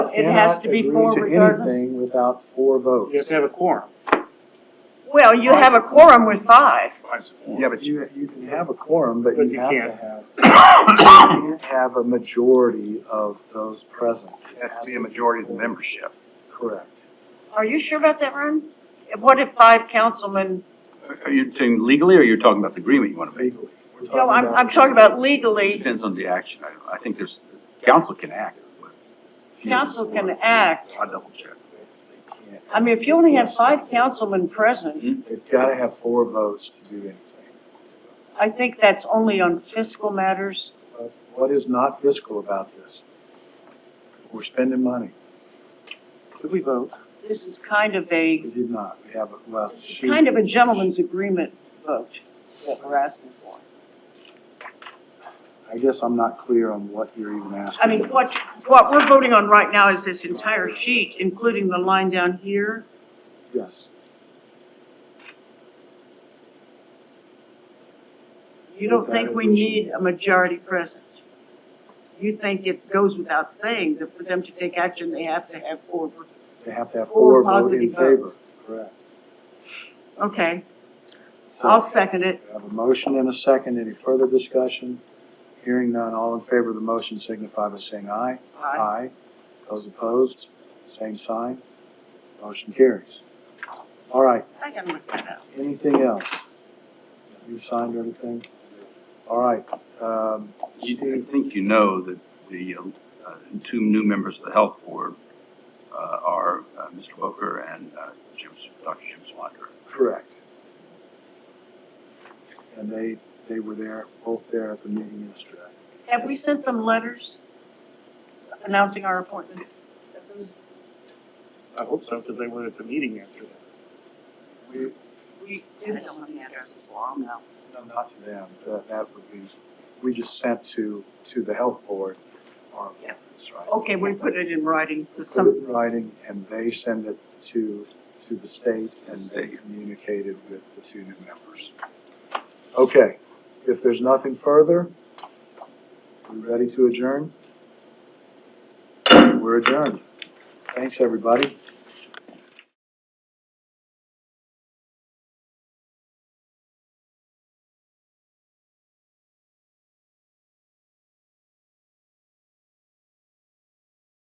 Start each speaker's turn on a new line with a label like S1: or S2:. S1: it has
S2: cannot
S1: to be
S2: agree
S1: four
S2: to
S1: regardless.
S2: Anything without four votes.
S3: You have to have a quorum.
S1: Well, you have a quorum with five.
S2: Yeah, but you, you can have a quorum, but
S3: But
S2: you
S3: you
S2: have
S3: can't.
S2: to have, you can't have a majority of those present.
S4: It has to be a majority of the membership.
S2: Correct.
S1: Are you sure about that, Ron? What if five councilmen,
S4: Are you talking legally, or you're talking about the agreement you want to make?
S2: Legally. We're
S1: no, I'm,
S2: about-
S1: I'm talking about legally,
S4: Depends on the action. I, I think there's, council can act. but-
S1: council can act.
S4: I'll double check.
S2: They can't.
S1: I mean, if you only have five councilmen present,
S2: They've gotta have four votes to do anything.
S1: I think that's only on fiscal matters.
S2: But What is not fiscal about this? We're spending money.
S3: Did we vote?
S1: This is kind of a,
S2: We did not. We have, a- well, she.
S1: kind of a gentleman's agreement vote that we're asking for.
S2: I guess I'm not clear on what you're even asking.
S1: I mean, what, what we're voting on right now is this entire sheet, including the line down here.
S2: Yes.
S1: You don't think we need a majority present? You think it goes without saying that for them to take action, they have to have four,
S2: They have to have
S1: Four
S2: four vote in
S1: positive
S2: favor.
S1: votes.
S2: Correct.
S1: okay,
S2: So-
S1: I'll second it.
S2: We have a motion and a second. Any further discussion? Hearing none, all in favor of the motion signify by saying aye.
S1: Aye.
S2: Those opposed, same sign. Motion carries. All right,
S1: I gotta look that up.
S2: anything else? You've signed everything? All right, um,
S4: You-
S2: Steve,
S4: I think you know that the, uh, uh, two new members of the health board, uh, are, uh, Mr. Booker and, uh, Jim, Dr. Jim Swander.
S2: correct. And they, they were there, both there at the meeting yesterday.
S1: Have we sent them letters announcing our appointment?
S3: I hope so, because they were at the meeting after that.
S2: We,
S1: We do not have the addresses, well, I'll know.
S2: No, not to them, that, that would be, we just sent to, to the health board our
S1: Yeah.
S2: appointments, right?
S1: Okay, we put it in writing, 'cause
S2: Put it
S1: some,
S2: in writing, and they send it to, to the state, and they
S4: State.
S2: communicated with the two new members. Okay, if there's nothing further, we ready to adjourn? We're adjourned. Thanks, everybody.